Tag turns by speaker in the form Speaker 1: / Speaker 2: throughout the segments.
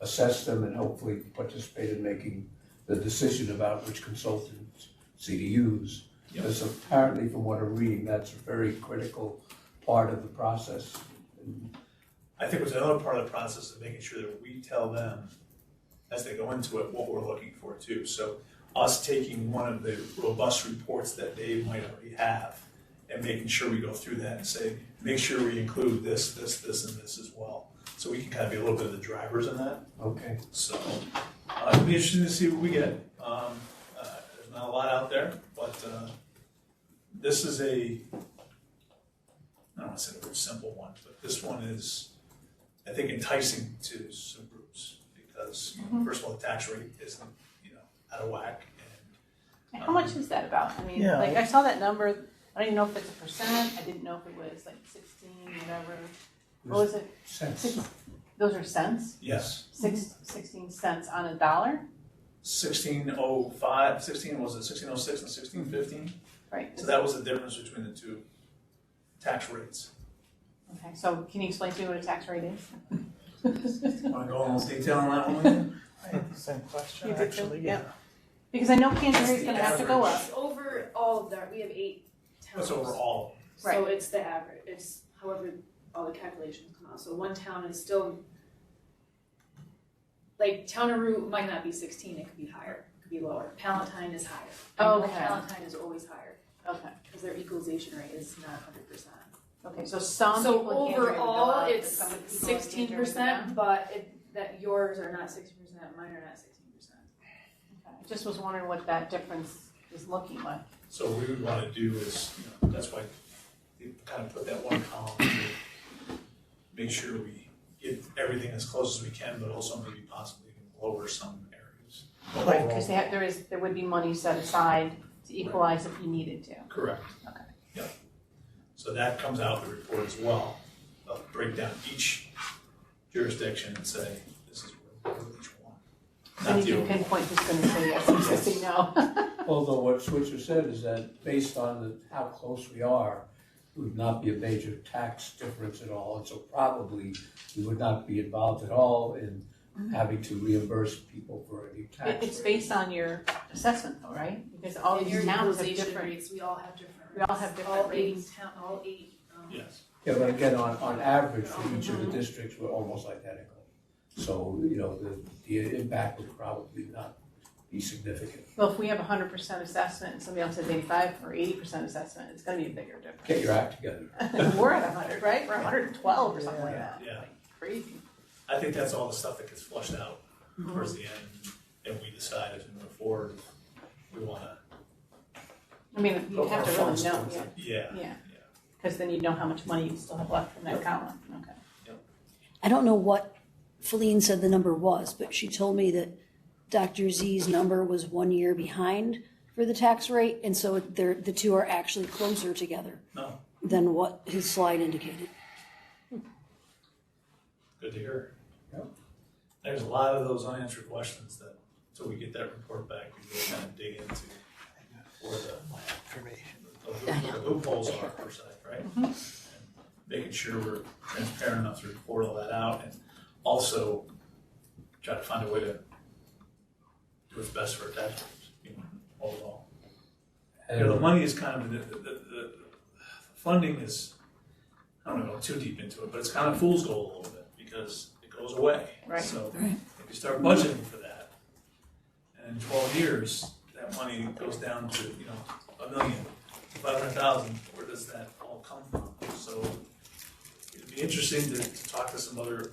Speaker 1: assess them and hopefully participate in making the decision about which consultants to use.
Speaker 2: Yep.
Speaker 1: Because apparently, from what I'm reading, that's a very critical part of the process.
Speaker 2: I think was another part of the process of making sure that we tell them as they go into it what we're looking for too. So us taking one of the robust reports that they might already have and making sure we go through that and say, make sure we include this, this, this, and this as well. So we can kind of be a little bit of the drivers in that.
Speaker 1: Okay,
Speaker 2: So uh, it'll be interesting to see what we get. Um, uh, there's not a lot out there, but uh, this is a I don't want to say the word simple one, but this one is I think enticing to some groups because you know, first of all the tax rate isn't you know out of whack and
Speaker 3: How much is that about? I mean,
Speaker 2: Yeah.
Speaker 3: like, I saw that number, I don't even know if it's a percent, I didn't know if it was like sixteen, whatever. What was it?
Speaker 1: sense.
Speaker 3: Six, those are cents?
Speaker 2: yes
Speaker 3: Six, sixteen cents on a dollar?
Speaker 2: 1605 16 oh what was it 1606 and 1615
Speaker 3: Right.
Speaker 2: so that was the difference between the two tax rates.
Speaker 3: Okay, so can you explain to me what a tax rate is?
Speaker 2: Want to go in more detail on that one? Lynn?
Speaker 4: I had the same question,
Speaker 3: You did too?
Speaker 4: actually,
Speaker 3: Yeah.
Speaker 4: yeah.
Speaker 3: Because I know Canterbury is gonna have to go up.
Speaker 5: It's over all of that, we have eight towns.
Speaker 2: That's overall.
Speaker 5: So it's the average, it's however all the calculations come out, so one town is still. Like Towneroo might not be sixteen, it could be higher, it could be lower, Palatine is higher. I know
Speaker 3: Okay.
Speaker 5: Palatine is always higher,
Speaker 3: Okay,
Speaker 5: cause their equalization rate is not hundred percent.
Speaker 3: okay, so some
Speaker 5: So
Speaker 3: people in Canterbury would go
Speaker 5: overall,
Speaker 3: up, but
Speaker 5: it's
Speaker 3: some people in Canterbury would
Speaker 5: sixteen
Speaker 3: not.
Speaker 5: percent, but it, that yours are not sixteen percent, mine are not sixteen percent.
Speaker 3: Okay, I Just was wondering what that difference is looking like.
Speaker 2: So what we would want to do is, you know, that's why they kind of put that one column to make sure we get everything as close as we can, but also maybe possibly even lower some areas. But
Speaker 4: Right,
Speaker 2: overall,
Speaker 3: Because they have, there is, there would be money set aside to equalize if you needed to.
Speaker 2: Correct.
Speaker 3: Okay.
Speaker 2: Yep. So that comes out in the report as well, They'll break down each jurisdiction and say, this is where we're each one.
Speaker 3: And
Speaker 2: Not
Speaker 3: if
Speaker 2: the
Speaker 3: you
Speaker 2: overall.
Speaker 3: pinpoint who's gonna say yes, who's gonna say no.
Speaker 1: Although what Switzer said is that based on the- how close we are, it would not be a major tax difference at all. And so probably we would not be involved at all in having to reimburse people for any
Speaker 3: Mm-hmm. It-
Speaker 1: tax.
Speaker 3: It's
Speaker 1: rate.
Speaker 3: based on your assessment though, right? Because all
Speaker 5: And
Speaker 3: these
Speaker 5: your
Speaker 3: towns have
Speaker 5: equalization
Speaker 3: different.
Speaker 5: rates, we all have different.
Speaker 3: We all
Speaker 5: rates.
Speaker 3: have different rates.
Speaker 5: eight town, all eight, um,
Speaker 2: Yes,
Speaker 1: Yeah, but again, on, on average, for each of the districts, we're almost identical. So, you know, the, the impact would probably not be significant.
Speaker 3: Well, if we have a hundred percent assessment and somebody else has eighty-five or eighty percent assessment, it's gonna be a bigger
Speaker 1: Get
Speaker 3: difference.
Speaker 1: your act together.
Speaker 3: We're at hundred, right? We're hundred and twelve or something like
Speaker 4: Yeah.
Speaker 3: that.
Speaker 2: yeah.
Speaker 3: Crazy.
Speaker 2: I think that's all the stuff that gets flushed out towards
Speaker 3: Mm-hmm.
Speaker 2: the end, and we decide as we move forward, we wanna.
Speaker 3: I mean, you have to really know, yeah,
Speaker 2: Yeah,
Speaker 3: yeah. Because then you know how much money you still have left from that column, okay.
Speaker 6: I don't know what Feline said the number was, but she told me that Dr. Z's number was one year behind for the tax rate, and so they're, the two are actually closer together
Speaker 2: no,
Speaker 6: than what his slide indicated.
Speaker 2: good to hear.
Speaker 1: Yep.
Speaker 2: There's a lot of those unanswered questions that, until we get that report back, we can kind of dig into where the,
Speaker 4: For me.
Speaker 2: the loop- the loopholes are per se, right? And Making sure we're transparent enough to report all that out, and also try to find a way to do what's best for our taxpayers, you know, overall. You know, the
Speaker 1: And
Speaker 2: money is kind of, the, the, the, the funding is, I don't wanna go too deep into it, but it's kind of fool's gold a little bit, because it goes away.
Speaker 3: Right.
Speaker 2: So,
Speaker 6: Right.
Speaker 2: if you start budgeting for that, and in twelve years, that money goes down to, you know, a million, five hundred thousand, where does that all come from? So, it'd be interesting to, to talk to some other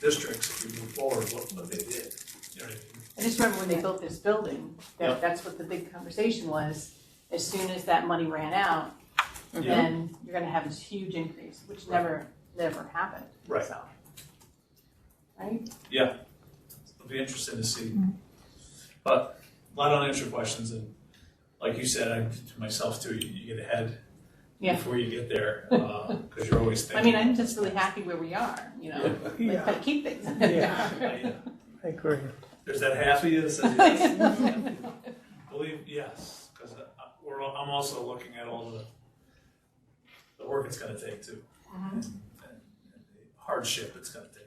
Speaker 2: districts if we move forward, what, what they did, you know what I mean?
Speaker 3: I just remember when they built this building,
Speaker 2: Yeah.
Speaker 3: that, that's what the big conversation was. As soon as that money ran out,
Speaker 2: Yeah.
Speaker 3: then you're gonna have this huge increase, which
Speaker 2: Right.
Speaker 3: never, never happened,
Speaker 2: Right.
Speaker 3: so. Right?
Speaker 2: It'll be interesting to see. But a lot of unanswered questions, and like you said, I, to myself too, you, you get ahead
Speaker 3: Yeah.
Speaker 2: before you get there, because you're always
Speaker 3: I
Speaker 2: thinking.
Speaker 3: mean, I'm just really happy where we are, you know, like,
Speaker 4: Yeah,
Speaker 3: gotta keep things.
Speaker 2: I-
Speaker 4: I agree.
Speaker 2: Oh, There's that half of you that says yes. Believe yes, because we're. all- I'm also looking at all the the work it's going to take too, and, and, and the hardship it's going to take.